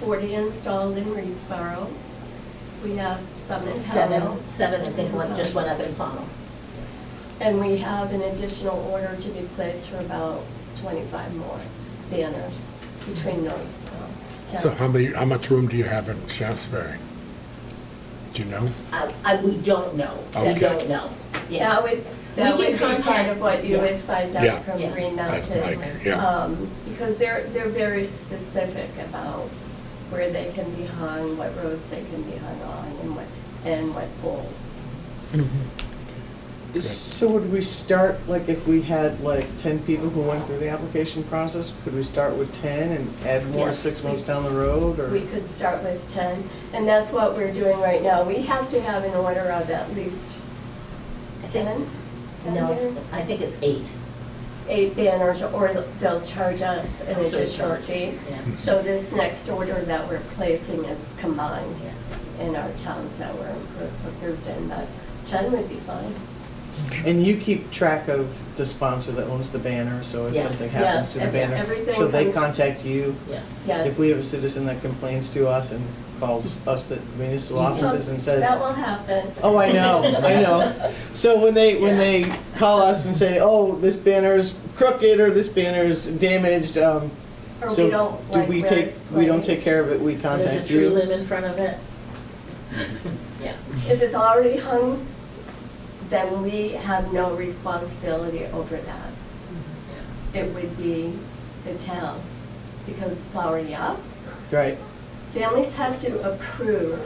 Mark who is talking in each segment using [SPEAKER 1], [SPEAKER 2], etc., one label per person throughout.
[SPEAKER 1] forty installed in Reedsboro. We have some in Powell.
[SPEAKER 2] Seven, seven, I think one, just one other in Pownell.
[SPEAKER 1] And we have an additional order to be placed for about twenty-five more banners between those um,
[SPEAKER 3] So how
[SPEAKER 1] towns.
[SPEAKER 3] many, how much room do you have in Shaftesbury? Do you know?
[SPEAKER 2] I, I, we don't know, we
[SPEAKER 3] Okay.
[SPEAKER 2] don't know, yeah.
[SPEAKER 1] That would, that
[SPEAKER 2] We
[SPEAKER 1] would be
[SPEAKER 2] can
[SPEAKER 1] part
[SPEAKER 2] contact-
[SPEAKER 1] of what you
[SPEAKER 2] yeah.
[SPEAKER 1] would find
[SPEAKER 3] Yeah.
[SPEAKER 1] out from
[SPEAKER 2] Yeah.
[SPEAKER 1] Green
[SPEAKER 3] That's
[SPEAKER 1] Mountain.
[SPEAKER 3] Mike, yeah.
[SPEAKER 1] um, Because they're, they're very specific about where they can be hung, what roads they can be hung on, and what, and what poles.
[SPEAKER 4] So would we start, like, if we had like ten people who went through the application process, could we start with ten and add more
[SPEAKER 1] Yes.
[SPEAKER 4] six months down the road, or?
[SPEAKER 1] We could start with 10, and that's what we're doing right now. We have to have an order of at least
[SPEAKER 2] I think-
[SPEAKER 1] 10?
[SPEAKER 2] No, it's,
[SPEAKER 1] 10?
[SPEAKER 2] I think it's eight.
[SPEAKER 1] Eight banners, or they'll charge us an
[SPEAKER 2] So it's
[SPEAKER 1] additional
[SPEAKER 2] charged,
[SPEAKER 1] fee.
[SPEAKER 2] yeah.
[SPEAKER 1] So this next order that we're placing is combined in our towns that were appro- approved, and the 10 would be fine.
[SPEAKER 4] And you keep track of the sponsor that owns the banner, so if
[SPEAKER 2] Yes,
[SPEAKER 4] something happens
[SPEAKER 1] yes,
[SPEAKER 4] to the
[SPEAKER 1] every-
[SPEAKER 4] banner,
[SPEAKER 1] everything
[SPEAKER 4] so they
[SPEAKER 1] comes-
[SPEAKER 4] contact you?
[SPEAKER 2] Yes.
[SPEAKER 1] Yeah. Yes.
[SPEAKER 4] If we have a citizen that complains to us and calls us, the municipal offices and says,
[SPEAKER 1] That will happen.
[SPEAKER 4] Oh, I know, I know. So when they, when they call us and say, oh, this banner's crooked or this banner's damaged, um,
[SPEAKER 1] Or we
[SPEAKER 4] so
[SPEAKER 1] don't
[SPEAKER 4] do
[SPEAKER 1] like
[SPEAKER 4] we
[SPEAKER 1] where
[SPEAKER 4] take,
[SPEAKER 1] it's
[SPEAKER 4] we don't take
[SPEAKER 1] placed.
[SPEAKER 4] care of it, we
[SPEAKER 2] There's a
[SPEAKER 4] contact
[SPEAKER 2] tree
[SPEAKER 4] you?
[SPEAKER 2] limb in front of it. Yeah.
[SPEAKER 1] If it's already hung, then we have no responsibility over that. It would be the town, because it's already up.
[SPEAKER 4] Right,
[SPEAKER 1] Families have to approve.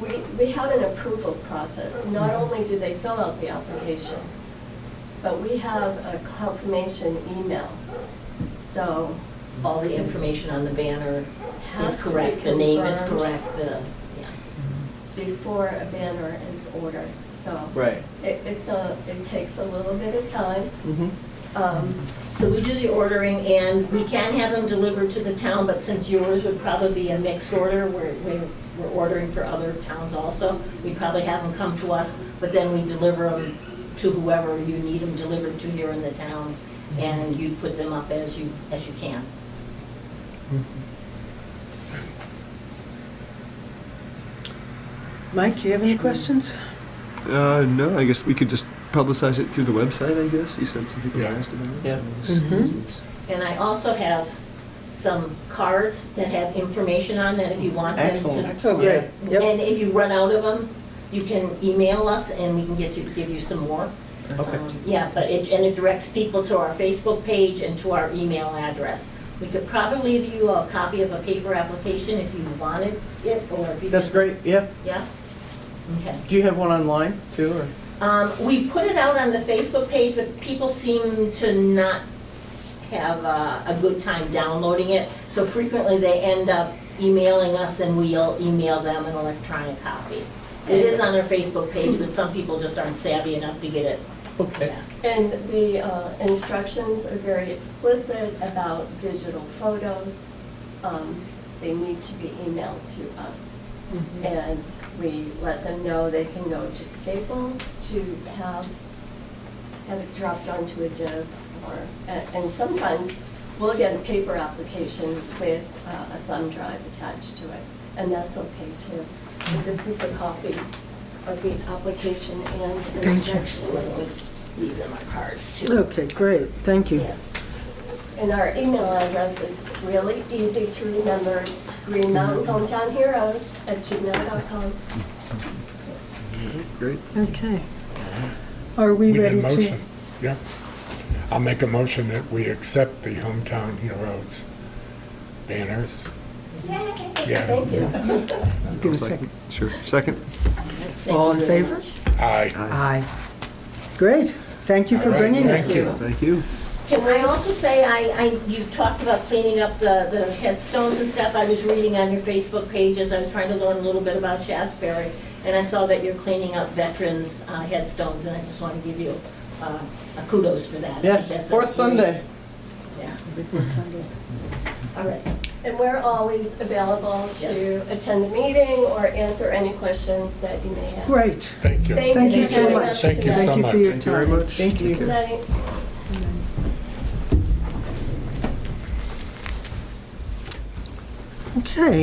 [SPEAKER 1] We, we have an approval process. Not only do they fill out the application, but we have a confirmation email. So,
[SPEAKER 2] All the information on the banner
[SPEAKER 1] Has
[SPEAKER 2] is
[SPEAKER 1] to be
[SPEAKER 2] correct, the name is
[SPEAKER 1] confirmed.
[SPEAKER 2] correct, uh, yeah.
[SPEAKER 1] before a banner is ordered, so.
[SPEAKER 4] right.
[SPEAKER 1] It, it's a, it takes a little bit of time.
[SPEAKER 4] Mhm.
[SPEAKER 1] Um,
[SPEAKER 2] So we do the ordering, and we can have them delivered to the town, but since yours would probably be a mixed order, we're, we're we're ordering for other towns also, we'd probably have them come to us, but then we deliver them to whoever you need them delivered to here in the town, and you put them up as you, as you can.
[SPEAKER 5] Mike, you have any questions?
[SPEAKER 6] Uh, no, I guess we could just publicize it through the website, I guess. You said some people
[SPEAKER 3] Yeah.
[SPEAKER 6] asked about it.
[SPEAKER 4] Yeah.
[SPEAKER 6] so I guess-
[SPEAKER 2] And I also have some cards that have information on that if you want them to.
[SPEAKER 4] Excellent.
[SPEAKER 5] Oh, great. Yep.
[SPEAKER 2] And if you run out of them, you can email us and we can get you, give you some more.
[SPEAKER 4] Okay.
[SPEAKER 2] Um, Yeah, but it, and it directs people to our Facebook page and to our email address. We could probably leave you a copy of a paper application if you wanted it, or if you.
[SPEAKER 4] That's
[SPEAKER 2] just-
[SPEAKER 4] great, yeah.
[SPEAKER 2] Yeah? Okay.
[SPEAKER 4] Do you have one online too, or?
[SPEAKER 2] Um, we put it out on the Facebook page, but people seem to not have uh, a good time downloading it. So frequently, they end up emailing us, and we'll email them an electronic copy. It is on our Facebook page, but some people just aren't savvy enough to get it.
[SPEAKER 4] Okay.
[SPEAKER 2] Yeah.
[SPEAKER 1] And the uh, instructions are very explicit about digital photos. Um, They need to be emailed to us. And we let them know they can go to Staples to have, have it dropped onto a disk or, and and sometimes we'll get a paper application with uh, a thumb drive attached to it. And that's okay too. But this is a copy of the application and instruction.
[SPEAKER 2] When we leave them our cards too.
[SPEAKER 5] Okay, great, thank you.
[SPEAKER 2] Yes.
[SPEAKER 1] And our email address is really easy to remember. It's Green Mountain Hometown Heroes at gmail.com.
[SPEAKER 2] yes.
[SPEAKER 3] Mm-hmm.
[SPEAKER 6] Great.
[SPEAKER 5] Okay. Are we
[SPEAKER 3] need a
[SPEAKER 5] ready to?
[SPEAKER 3] motion. Yeah. I'll make a motion that we accept the Hometown Heroes banners.
[SPEAKER 1] Yay!
[SPEAKER 3] Yeah.
[SPEAKER 1] Thank you.
[SPEAKER 5] Give a
[SPEAKER 6] Looks like-
[SPEAKER 5] second.
[SPEAKER 6] Sure. Second?
[SPEAKER 5] All
[SPEAKER 2] Thank
[SPEAKER 5] in
[SPEAKER 2] you very
[SPEAKER 5] favor?
[SPEAKER 2] much.
[SPEAKER 3] Aye.
[SPEAKER 5] Aye. Great, thank you for
[SPEAKER 3] All right,
[SPEAKER 5] bringing
[SPEAKER 3] thank
[SPEAKER 5] us.
[SPEAKER 3] you.
[SPEAKER 6] Thank you.
[SPEAKER 2] Can I also say, I, I, you talked about cleaning up the, the headstones and stuff. I was reading on your Facebook page as I was trying to learn a little bit about Shasberry, and I saw that you're cleaning up veterans' uh, headstones, and I just want to give you uh, a kudos for that.
[SPEAKER 4] Yes,
[SPEAKER 2] That's a
[SPEAKER 4] fourth
[SPEAKER 2] great-
[SPEAKER 4] Sunday.
[SPEAKER 2] Yeah. All right.
[SPEAKER 1] And we're always available to
[SPEAKER 2] Yes.
[SPEAKER 1] attend the meeting or answer any questions that you may have.
[SPEAKER 5] Great,
[SPEAKER 3] Thank you.
[SPEAKER 1] Thank
[SPEAKER 5] thank
[SPEAKER 1] you
[SPEAKER 5] you so
[SPEAKER 1] very
[SPEAKER 5] much.
[SPEAKER 1] much.
[SPEAKER 3] Thank you so
[SPEAKER 5] Thank you
[SPEAKER 3] much.
[SPEAKER 5] for your
[SPEAKER 6] Thank you very
[SPEAKER 5] time.
[SPEAKER 6] much.
[SPEAKER 4] Thank
[SPEAKER 6] Take
[SPEAKER 4] you.
[SPEAKER 1] Good
[SPEAKER 6] care.
[SPEAKER 1] night.
[SPEAKER 5] Okay.